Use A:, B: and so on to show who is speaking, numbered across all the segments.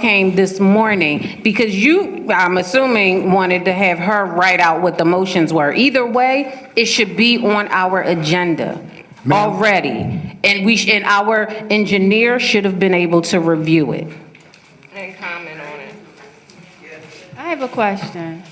A: came this morning, because you, I'm assuming, wanted to have her write out what the motions were. Either way, it should be on our agenda already. And we, sh- and our engineer should have been able to review it.
B: and comment on it.
C: I have a question.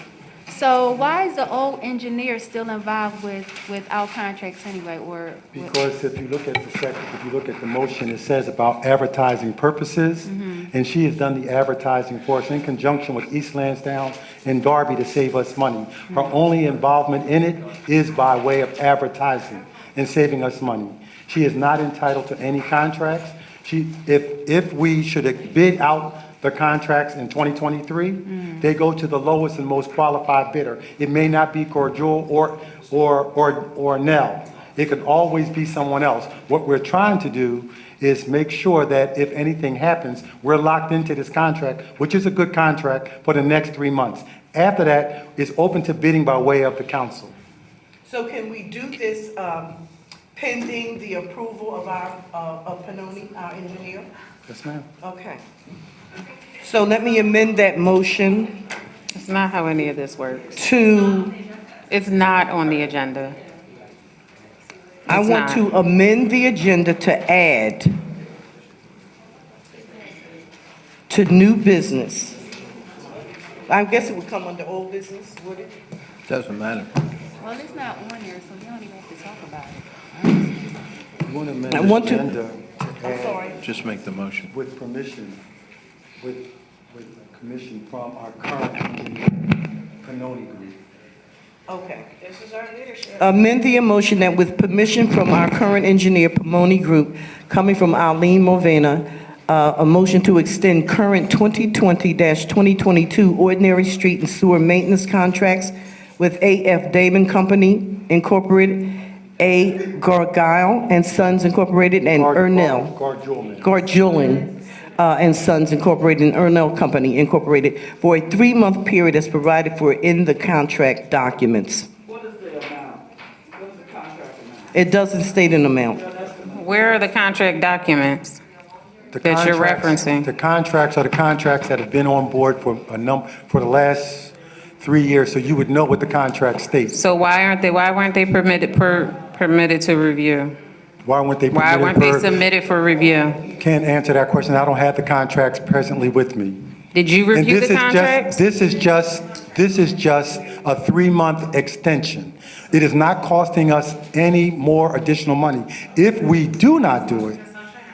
C: So why is the old engineer still involved with, with our contracts anyway, or? with-
D: Because if you look at the second, if you look at the motion, it says about advertising purposes, and she has done the advertising for us in conjunction with East Lansdowne and Darby to save us money. Her only involvement in it is by way of advertising and saving us money. She is not entitled to any contracts. She, if, if we should bid out the contracts in 2023, they go to the lowest and most qualified bidder. It may not be Cordjul or, or, or, or Nell. It could always be someone else. What we're trying to do is make sure that if anything happens, we're locked into this contract, which is a good contract, for the next three months. After that, it's open to bidding by way of the council.
E: So can we do this um, pending the approval of our, uh, of Panoni, our engineer?
D: Yes, ma'am.
E: Okay. So let me amend that motion
A: It's not how any of this works.
E: to,
A: It's not on the agenda.
E: I
A: It's
E: want
A: not.
E: to amend the agenda to add to new business. I guess it would come under old business, would it?
F: Doesn't matter.
C: Well, it's not on there, so we don't even have to talk about it.
D: You want to amend
E: I
D: this
E: want to-
D: agenda to
E: I'm
D: add
E: sorry.
F: Just make the motion.
D: with permission, with, with permission from our current engineer, Panoni Group.
E: Okay. This is our leadership. Amend the motion that with permission from our current engineer, Pomoni Group, coming from Arlene Movena, uh, a motion to extend current 2020-2022 ordinary street and sewer maintenance contracts with AF Damon Company Incorporated, A. Gargile and Sons Incorporated, and
D: Guard-
E: Ernell.
D: Guard Jewel, ma'am.
E: Gardulin uh, and Sons Incorporated and Ernell Company Incorporated for a three-month period as provided for in the contract documents. What is the amount? What is the contract amount? It doesn't state an amount.
A: Where are the contract documents?
D: The
A: that you're
D: contracts-
A: referencing.
D: The contracts are the contracts that have been on board for a num, for the last three years, so you would know what the contract states.
A: So why aren't they, why weren't they permitted, per, permitted to review?
D: Why weren't they
A: Why weren't they
D: permitted per?
A: submitted for review?
D: Can't answer that question, I don't have the contracts presently with me.
A: Did you
D: And
A: review
D: this
A: the
D: is
A: contracts?
D: just, this is just, this is just a three-month extension. It is not costing us any more additional money. If we do not do it,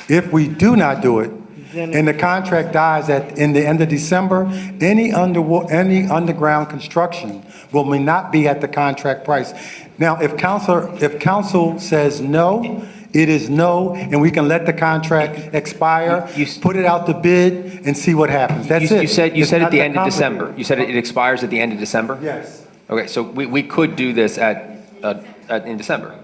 D: if we do not do it, and the contract dies at, in the end of December, any under, any underground construction will may not be at the contract price. Now, if council, if council says no, it is no, and we can let the contract expire,
G: You- you-
D: put it out to bid, and see what happens. That's
G: You-
D: it.
G: You said, you
D: It's
G: said
D: not
G: at the
D: that
G: end of December.
D: complicated.
G: You said it it expires at the end of December?
D: Yes,
G: Okay, so we, we could do this at, at- at, in December.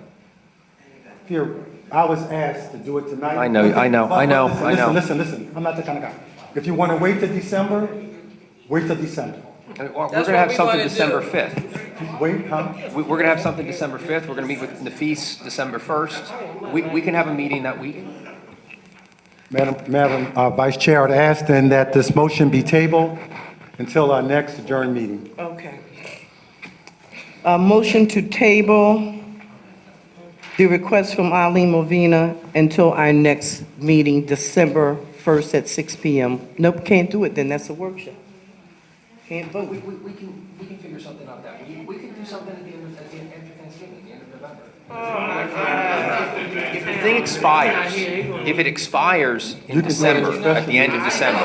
D: here, I was asked to do it tonight.
G: I know, I know, I know,
D: Listen,
G: I know.
D: Listen, listen, listen, I'm not the kind of guy. If you want to wait till December, wait till December.
G: And We're going to have something December 5th.
D: Wait, huh?
G: We- We're going to have something December 5th. We're going to meet with Nafis December 1st. We, we can have a meeting that week.
D: Madam, Madam uh, Vice Chair, I'd ask then that this motion be tabled until our next adjourned meeting.
E: Okay. A motion to table the request from Eileen Movina until our next meeting, December 1st at 6 PM. Nope, can't do it then, that's a workshop. Can't vote.
G: we, we can, we can figure something out that week. We can do something at the end, at the end of Thanksgiving, the end of November. If the thing expires, if it expires in December, at the end of December,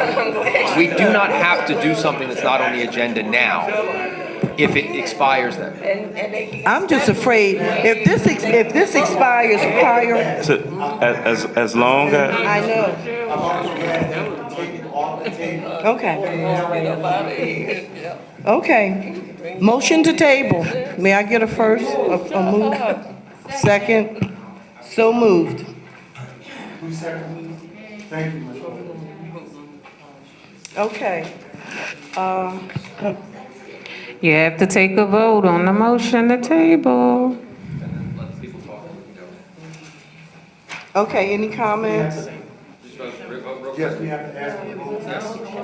G: we do not have to do something that's not on the agenda now if it expires then.
E: I'm just afraid, if this, ex- if this expires prior,
H: So, as, as, as long as,
E: I know. Okay. Okay. Motion to table. May I get a first, a a move? Second? So moved.
D: Who seconded? Thank you, Ms. Moore.
E: Okay.
A: You have to take a vote on the motion to table.
E: Okay, any comments?
D: Yes, we have to ask.